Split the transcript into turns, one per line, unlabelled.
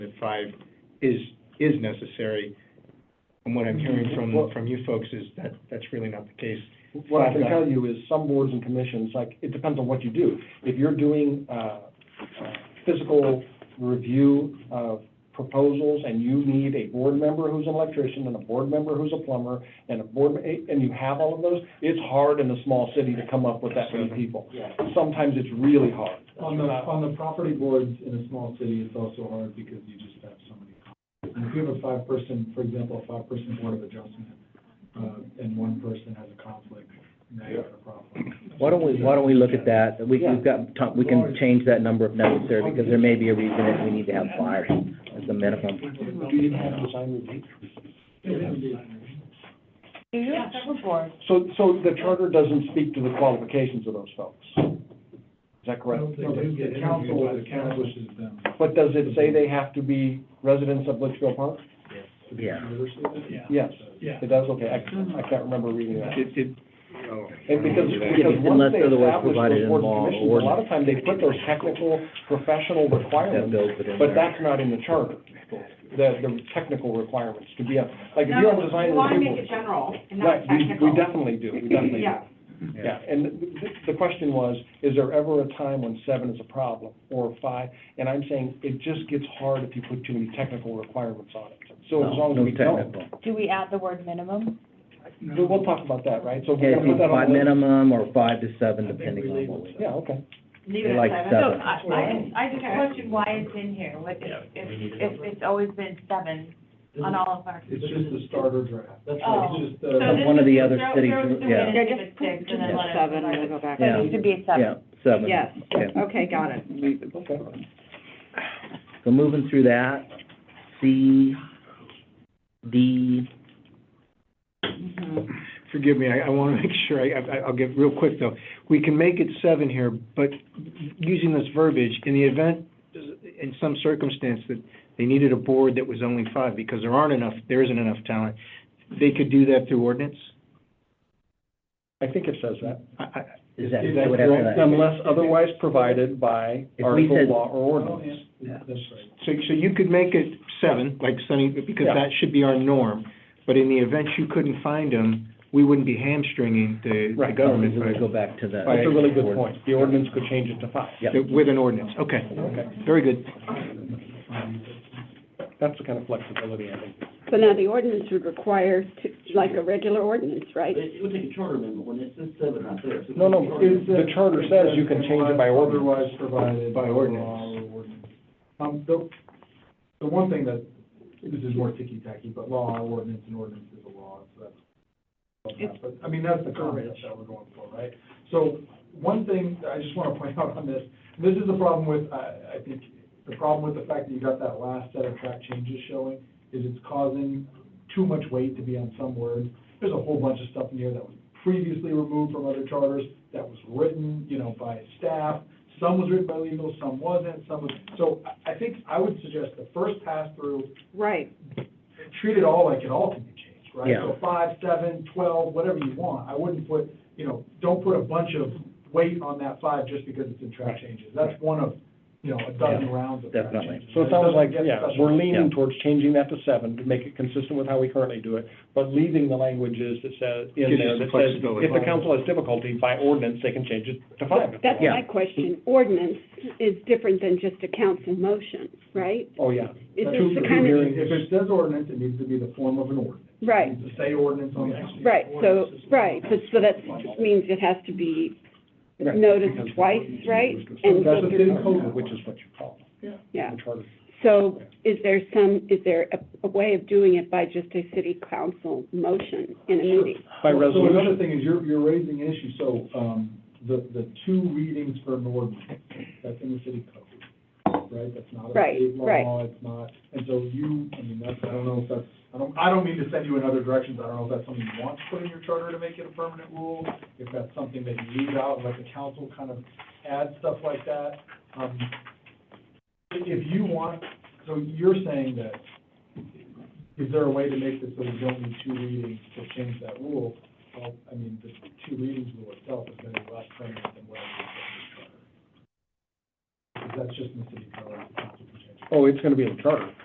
at five is, is necessary. And what I'm hearing
Well-
from, from you folks is that that's really not the case.
What I can tell you is some boards and commissions, like, it depends on what you do. If you're doing, uh, uh, physical review of proposals and you need a board member who's an electrician and a board member who's a plumber and a board, eh, and you have all of those, it's hard in a small city to come up with that many people.
Yeah.
Sometimes it's really hard. Uh,
On the, on the property boards in a small city, it's also hard because you just have so many. conflicts. And If you have a five-person, for example, a five-person board of adjustment, uh, and one person has a conflict, now you have a problem.
Why don't we, why don't we look at that, we, we've got, time- we can change that number if necessary, because there may be a reason that we need to have five as the minimum.
Do you have design review?
Do you have several boards?
So, so the charter doesn't speak to the qualifications of those folks. Is that correct?
No, the- The council establishes them.
But does it say they have to be residents of Litchfield Park?
to be
Yeah.
conversed with.
Yes.
Yeah.
It does, okay, I, I can't remember reading that.
It, it, oh.
And because,
Yeah,
because once
unless
they
otherwise
establish
provided
those
in
boards
law or
and commissions, a lot of time they put those technical, professional
That
requirements,
goes within
but
there.
that's not in the charter. The, the technical requirements to be a, like, if you're on design
No, we wanna
review.
make it general and not
Right, we,
technical.
we definitely do, we definitely do.
Yeah,
Yeah, and the- the question was, is there ever a time when seven is a problem, or five? And I'm saying, it just gets hard if you put too many technical requirements on it. So as long as
No
we don't,
technical.
Do we add the word minimum?
we'll we'll talk about that, right? So
Okay,
we're gonna put
it's
that on
five
the list.
minimum or five to seven, depending on what we.
Yeah, okay.
leave
They
it
like
at
So
seven.
seven.
I, I just, I just questioned why it's in here, what if, if, if it's always been seven on all of our.
It's just the starter draft. That's
right.
It's just uh,
So
the.
From one of the other
this is-
cities,
throw- throw it
yeah.
in
Yeah,
and give
just
it
put-
six,
just
and then let
put
us-
seven,
let
and
us-
we'll go back.
So
Yeah.
it needs to be a
Yeah,
seven.
seven.
Yes,
Okay.
okay, got it.
Okay.
So moving through that, C, D,
Mm-hmm.
Forgive me, I, I want to make sure, I, I- I'll get real quick though. We can make it seven here, but using this verbiage, in the event, in some circumstance that they needed a board that was only five because there aren't enough, there isn't enough talent, they could do that through ordinance?
I think it says that.
I, I,
is that,
Is
that
that
would have to-
correct?
Unless otherwise provided by
If we
article,
said-
law, or ordinance.
Oh, Yeah, That's right.
So, so you could make it seven, like Sunny, because
Yeah.
that should be our norm, but in the event you couldn't find them, we wouldn't be hamstringing the, the
Right.
government
we
by-
go back to the.
That's a really good point. The ordinance could change it to five.
Yeah.
with an ordinance. Okay,
Okay,
very good.
that's the kind of flexibility I think.
So now the ordinance would require, to- like a regular ordinance, right?
It would take a charter amendment when it says seven out there.
No, no,
uh,
it- the charter says you can change it by ordinance.
Otherwise provided.
By ordinance.
law or ordinance. Um, the, the one thing that, this is more ticky-tacky, but law, ordinance, and ordinance is a law, so that's. But, I mean, that's the concept that we're going for, right? So, one thing that I just want to point out on this, this is the problem with, I, I think, the problem with the fact that you got that last set of track changes showing, is it's causing too much weight to be on some words. There's a whole bunch of stuff in here that was previously removed from other charters, that was written, you know, by staff. Some was written by legal, some wasn't, some was, so I, I think I would suggest the first pass through,
Right.
treat it all like it all can be changed, right?
Yeah.
So five, seven, twelve, whatever you want. I wouldn't put, you know, don't put a bunch of weight on that five just because it's in track changes. That's one of, you know, a dozen rounds of track
definitely.
changes.
So it sounds
doesn't
like,
get
yeah,
special.
we're
Yeah.
leaning towards changing that to seven to make it consistent with how we currently do it, but leaving the languages that says,
Gives
in
you
there
some
that says,
flexibility.
if the council has difficulty by ordinance, they can change it to five.
That's my
Yeah.
question. Ordinance is different than just a council motion, right?
Oh, yeah.
Is
That's
this
true.
the kind of,
hearings.
If it says ordinance, it needs to be the form of an ordinance.
right,
To say ordinance on the.
right, so, right, but so that just means it has to be
Right.
noticed twice, right? And,
That's a big code.
Which is what you call it.
yeah.
the charter.
So is there some, is there a, a way of doing it by just a city council motion in a
Sure.
meeting?
By
Well, So another
resolution,
thing is, you're, you're raising an issue, so, um, the, the two readings for an ordinance, that's in the city code, right? That's not a
Right,
state
right.
law, it's not, and so you, I mean, that's, I don't know if that's, I don't, I don't mean to send you in other directions, I don't know if that's something you want to put in your charter to make it a permanent rule, if that's something that you leave out, let the council kind of add stuff like that. Um, i- if you want, so you're saying that, is there a way to make this so we don't need two readings to change that rule? Well, I mean, the two readings rule itself is gonna be less permanent than what it is in the charter. Because that's just in the city code. it's not in the charter.
oh, it's gonna be in the charter.